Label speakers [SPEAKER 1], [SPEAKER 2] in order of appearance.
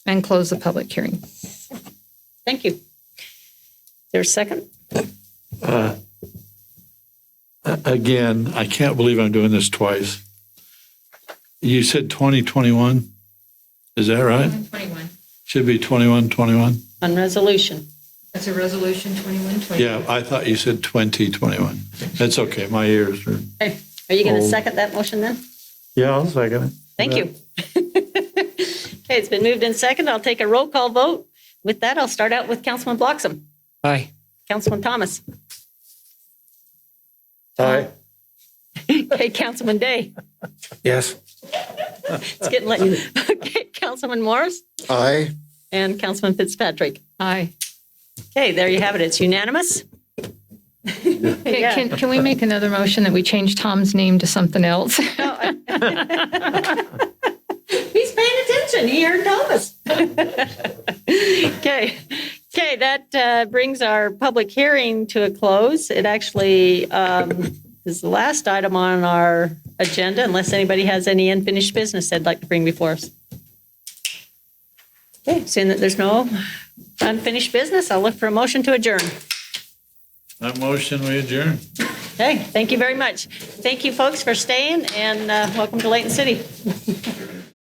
[SPEAKER 1] and close the public hearing.
[SPEAKER 2] Thank you. There's a second?
[SPEAKER 3] Uh, a- Again, I can't believe I'm doing this twice. You said 2021? Is that right?
[SPEAKER 1] 21.
[SPEAKER 3] Should be 21, 21?
[SPEAKER 2] On resolution.
[SPEAKER 1] That's a resolution 21.
[SPEAKER 3] Yeah, I thought you said 2021. That's okay, my ears are.
[SPEAKER 2] Hey, Are you going to
[SPEAKER 3] Oh.
[SPEAKER 2] second that motion then?
[SPEAKER 3] Yeah, I'll second it.
[SPEAKER 2] Thank you. Okay, it's been moved in second. I'll take a roll call vote. With that, I'll start out with Councilman Bloxham.
[SPEAKER 4] Aye.
[SPEAKER 2] Councilman Thomas. Uh,
[SPEAKER 4] Aye.
[SPEAKER 2] Okay, Councilman Day.
[SPEAKER 4] Yes.
[SPEAKER 2] It's getting late. Okay, Councilman Morris
[SPEAKER 5] Aye.
[SPEAKER 2] and Councilman Fitzpatrick.
[SPEAKER 1] Aye.
[SPEAKER 2] Okay, there you have it. It's unanimous.
[SPEAKER 1] Okay, Can, can we make another motion that we change Tom's name to something else?
[SPEAKER 2] He's paying attention. He heard Thomas. okay. Okay, that uh, brings our public hearing to a close. It actually um, is the last item on our agenda, unless anybody has any unfinished business they'd like to bring before us. Okay, seeing that there's no unfinished business, I'll look for a motion to adjourn.
[SPEAKER 3] That motion, we adjourn.
[SPEAKER 2] Okay, thank you very much. Thank you, folks, for staying, and uh, welcome to Layton City.